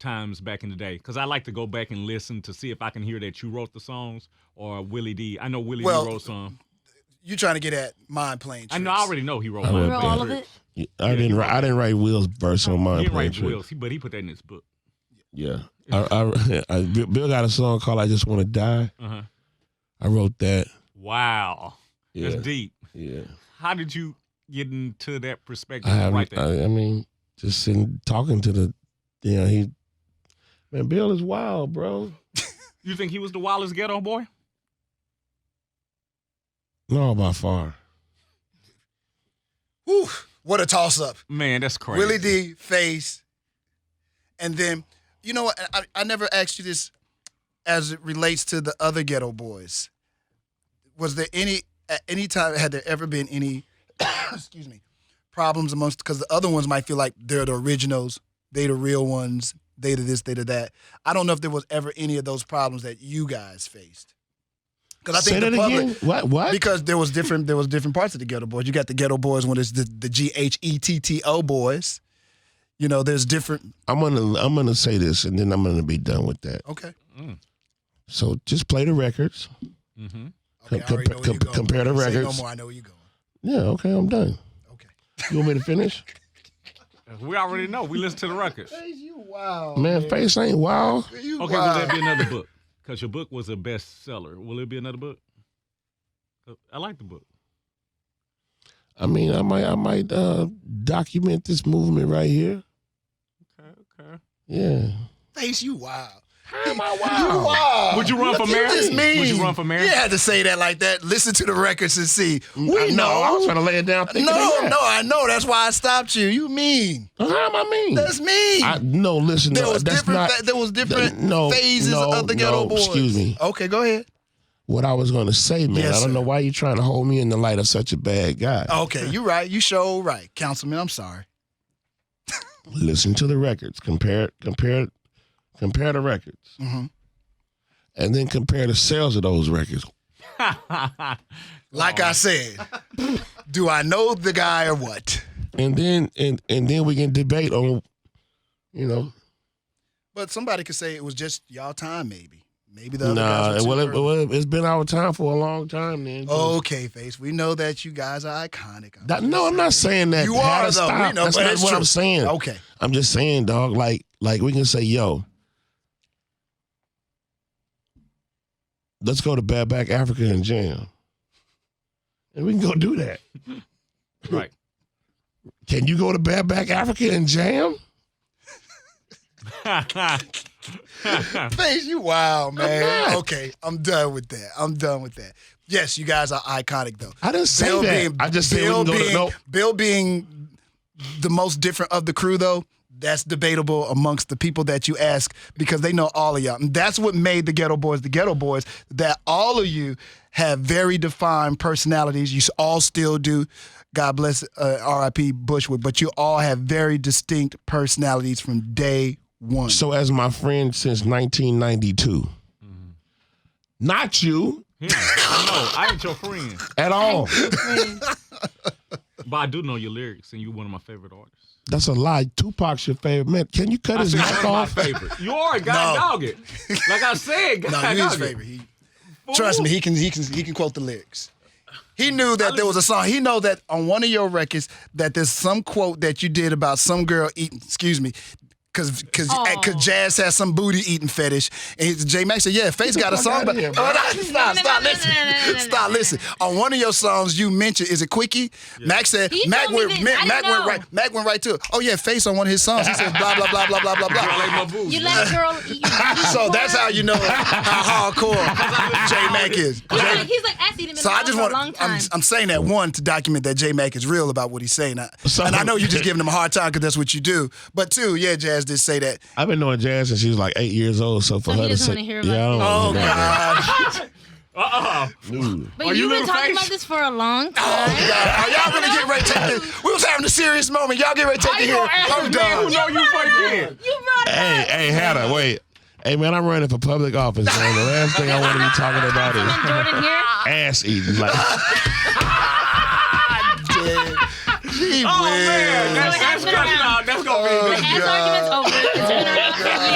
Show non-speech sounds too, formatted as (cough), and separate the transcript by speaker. Speaker 1: times back in the day because I like to go back and listen to see if I can hear that you wrote the songs or Willie D. I know Willie
Speaker 2: Well,
Speaker 1: D wrote some.
Speaker 2: You trying to get at mind playing?
Speaker 1: I know I
Speaker 2: tricks.
Speaker 1: already know he wrote.
Speaker 3: I
Speaker 1: Mind
Speaker 3: wrote
Speaker 1: Playing
Speaker 3: all of
Speaker 1: Tricks.
Speaker 3: Yeah, I didn't. Write, I didn't write Will's verse on
Speaker 1: He
Speaker 3: mine.
Speaker 1: didn't
Speaker 3: playing
Speaker 1: write
Speaker 3: tricks.
Speaker 1: Will's, but he put that in his book.
Speaker 3: Yeah. I, (laughs) I, I, Bill got a song called "I Just Want to Die."
Speaker 1: Uh-huh.
Speaker 3: I wrote that.
Speaker 1: Wow,
Speaker 3: Yeah.
Speaker 1: that's deep.
Speaker 3: Yeah.
Speaker 1: How did you get into that perspective?
Speaker 3: I
Speaker 1: to write
Speaker 3: haven't.
Speaker 1: that?
Speaker 3: I, I mean, just sitting talking to the. You know, he. Man, Bill is wild, bro.
Speaker 1: you think he was the wildest ghetto boy?
Speaker 3: No, by far.
Speaker 2: Whew, what a toss up.
Speaker 1: Man, that's crazy.
Speaker 2: Willie D face, and then you know what? I, I never asked you this as it relates to the other Ghetto Boys. Was there any at any time had there ever been any (coughs) excuse me problems amongst because the other ones might feel like they're the originals, they the real ones, they the this, they the that. I don't know if there was ever any of those problems that you guys faced. Because I think
Speaker 3: Say
Speaker 2: the
Speaker 3: that
Speaker 2: public,
Speaker 3: again. What? What?
Speaker 2: because there was different there was different parts of the ghetto boys. You got the ghetto boys when it's the the G H E T T O boys. You know, there's different.
Speaker 3: I'm gonna. I'm gonna say this, and then I'm gonna be done with that.
Speaker 2: Okay.
Speaker 3: So just play the records.
Speaker 1: hmm
Speaker 2: Okay. I
Speaker 3: Com-
Speaker 2: already know where
Speaker 3: com-
Speaker 2: you going.
Speaker 3: compare the
Speaker 2: Say No
Speaker 3: records.
Speaker 2: more. I know where you going.
Speaker 3: Yeah. Okay. I'm done.
Speaker 2: Okay.
Speaker 3: You want me to (laughs) finish?
Speaker 1: We already know. We listen to the
Speaker 3: (laughs)
Speaker 1: records.
Speaker 2: You wow.
Speaker 3: Oh, Man, face ain't wild.
Speaker 2: You
Speaker 1: Okay, will that be another book? Because your book was a bestseller. Will it be another book? Uh, I like the book.
Speaker 3: I mean, I might. I might uh, document this movement right here.
Speaker 1: Okay, okay.
Speaker 3: Yeah.
Speaker 2: Face you wow.
Speaker 3: How am I
Speaker 2: You wow.
Speaker 1: Would you run for mayor?
Speaker 2: You just mean.
Speaker 1: Would you run for mayor?
Speaker 2: You had to say that like that. Listen to the records and see. We
Speaker 3: Mm, I know. I was
Speaker 2: know.
Speaker 3: trying to lay it down.
Speaker 2: No,
Speaker 3: thinking of that.
Speaker 2: no, I know. That's why I stopped you. You mean?
Speaker 3: How am I mean?
Speaker 2: That's mean.
Speaker 3: I, no, listen.
Speaker 2: there
Speaker 3: no,
Speaker 2: was
Speaker 3: that's
Speaker 2: different.
Speaker 3: not,
Speaker 2: fa- there was different
Speaker 3: no,
Speaker 2: phases
Speaker 3: no,
Speaker 2: of the ghetto
Speaker 3: no,
Speaker 2: boys.
Speaker 3: excuse me.
Speaker 2: Okay, go ahead.
Speaker 3: what I was going to say, man.
Speaker 2: Yes,
Speaker 3: I don't
Speaker 2: sir. Oh.
Speaker 3: know why you're trying to hold me in the light of such a bad guy. (laughs)
Speaker 2: Okay, you right. You show right, Councilman. I'm sorry.
Speaker 3: Listen to the records. Compare, compare, compare the records,
Speaker 2: Mhm.
Speaker 3: and then compare the sales of those records.
Speaker 2: Like I said, do I know the guy or what?
Speaker 3: and then and and then we can debate on you know
Speaker 2: But somebody could say it was just y'all time, maybe. Maybe the other
Speaker 3: nah
Speaker 2: guys. Were Oh,
Speaker 3: well,
Speaker 2: too
Speaker 3: it,
Speaker 2: early.
Speaker 3: well it's been our time for a long time man
Speaker 2: okay, face. We know that you guys are iconic.
Speaker 3: That- no i'm not saying that
Speaker 2: You
Speaker 3: Had
Speaker 2: are
Speaker 3: to
Speaker 2: though.
Speaker 3: stop.
Speaker 2: We know,
Speaker 3: that's
Speaker 2: but
Speaker 3: not
Speaker 2: it's
Speaker 3: what
Speaker 2: true.
Speaker 3: i'm saying
Speaker 2: Okay.
Speaker 3: i'm just saying dog like like we can say yo let's go to bad back africa and jam and we can go do that
Speaker 1: (laughs) right. (laughs)
Speaker 3: can you go to bad back africa and jam
Speaker 2: Face, you wild, man.
Speaker 3: not.
Speaker 2: okay, I'm done with that. I'm done with that. Yes, you guys are iconic though.
Speaker 3: i didn't say
Speaker 2: Bill
Speaker 3: that
Speaker 2: being
Speaker 3: i just said we
Speaker 2: Bill
Speaker 3: can go
Speaker 2: being
Speaker 3: to no
Speaker 2: Bill being the most different of the crew though. That's debatable amongst the people that you ask because they know all of y'all. And that's what made the Ghetto Boys the Ghetto Boys. That all of you have very defined personalities. You all still do. God bless uh, R.I.P. Bushwood, but you all have very distinct personalities from day one.
Speaker 3: So, as my friend since 1992, not you
Speaker 1: Yeah, I know. I ain't your friend,
Speaker 3: at all.
Speaker 2: (laughs)
Speaker 1: but I do know your lyrics, and you're one of my favorite artists.
Speaker 3: That's a lie. Tupac's your favorite man. Can you cut
Speaker 1: I
Speaker 3: his
Speaker 1: said
Speaker 3: mic
Speaker 1: one
Speaker 3: off?
Speaker 1: of my favorite. You are a guy
Speaker 2: No.
Speaker 1: dog it. Like I said, guy
Speaker 2: (laughs) no, you his
Speaker 1: dog it.
Speaker 2: favorite. He, Trust me, he can he can he can quote the lyrics. He knew that there was a song. He know that on one of your records that there's some quote that you did about some girl eating. Excuse me. Cause, cause,
Speaker 4: Aw.
Speaker 2: cause Jazz has some booty eating fetish, and he's- J Max said, "Yeah, Face got a
Speaker 3: fuck
Speaker 2: song,
Speaker 3: outta
Speaker 2: but
Speaker 3: here, bro.
Speaker 2: oh, no, stop,
Speaker 4: no,
Speaker 2: stop,
Speaker 4: no, no, no, no, no,
Speaker 2: listen,
Speaker 4: no,
Speaker 2: stop,
Speaker 4: no, no.
Speaker 2: listen." On one of your songs, you mentioned, "Is it Quickie?" Max said,
Speaker 4: He
Speaker 2: "Mac
Speaker 4: told me
Speaker 2: went,
Speaker 4: this.
Speaker 2: Mac,
Speaker 4: I
Speaker 2: Mac
Speaker 4: didn't
Speaker 2: went
Speaker 4: know.
Speaker 2: right, Mac went right to it. Oh yeah, Face on one of his songs. He said, "Blah blah blah blah blah blah blah."
Speaker 1: I like my boo.
Speaker 4: You let girl
Speaker 2: (laughs)
Speaker 4: eat. you
Speaker 2: So that's how
Speaker 4: porn.
Speaker 2: you know how
Speaker 4: (laughs)
Speaker 2: hardcore J Mac is.
Speaker 4: He's
Speaker 2: J-
Speaker 4: like, he's like I seen him in
Speaker 2: so
Speaker 4: the
Speaker 2: I just
Speaker 4: for
Speaker 2: want
Speaker 4: a long time.
Speaker 2: I'm, I'm saying that one to document that J Mac is real about what he's saying, I,
Speaker 3: So-
Speaker 2: (laughs) and I know you're just giving him a hard time because that's what you do. But two, yeah, Jazz did say that.
Speaker 3: I've been knowing Jazz since she was like eight years old. So for
Speaker 4: So he
Speaker 3: her to
Speaker 4: doesn't
Speaker 3: say,
Speaker 4: wanna hear about
Speaker 3: yeah, I
Speaker 2: Oh
Speaker 3: don't want
Speaker 2: (laughs) God,
Speaker 1: Uh-uh.
Speaker 3: to
Speaker 1: Are
Speaker 4: but
Speaker 1: you
Speaker 4: you've been
Speaker 1: little
Speaker 4: talking
Speaker 1: face?
Speaker 4: about this for a long
Speaker 2: oh
Speaker 4: time.
Speaker 2: God, are y'all gonna get ready to take this? We was having a serious moment. Y'all get ready to take
Speaker 1: I
Speaker 2: it
Speaker 1: ain't
Speaker 2: here.
Speaker 1: gonna ask
Speaker 2: I'm
Speaker 1: this man who
Speaker 2: done.
Speaker 1: know you for again.
Speaker 4: You brought it
Speaker 3: Hey,
Speaker 4: up.
Speaker 3: hey, Hannah, wait. Hey, man, I'm running for public office, man. The last thing I want to be talking about is
Speaker 4: Someone
Speaker 2: (laughs)
Speaker 4: Jordan here.
Speaker 2: Oh,
Speaker 3: ass eating. Like,
Speaker 2: Gee
Speaker 1: Oh man,
Speaker 2: whiz.
Speaker 1: that's, that's
Speaker 4: Well, that's been
Speaker 1: cutting
Speaker 4: around.
Speaker 1: out. That's gonna be.
Speaker 2: Uh,
Speaker 4: The ass argument's over. It's been around.
Speaker 2: (laughs)
Speaker 4: God.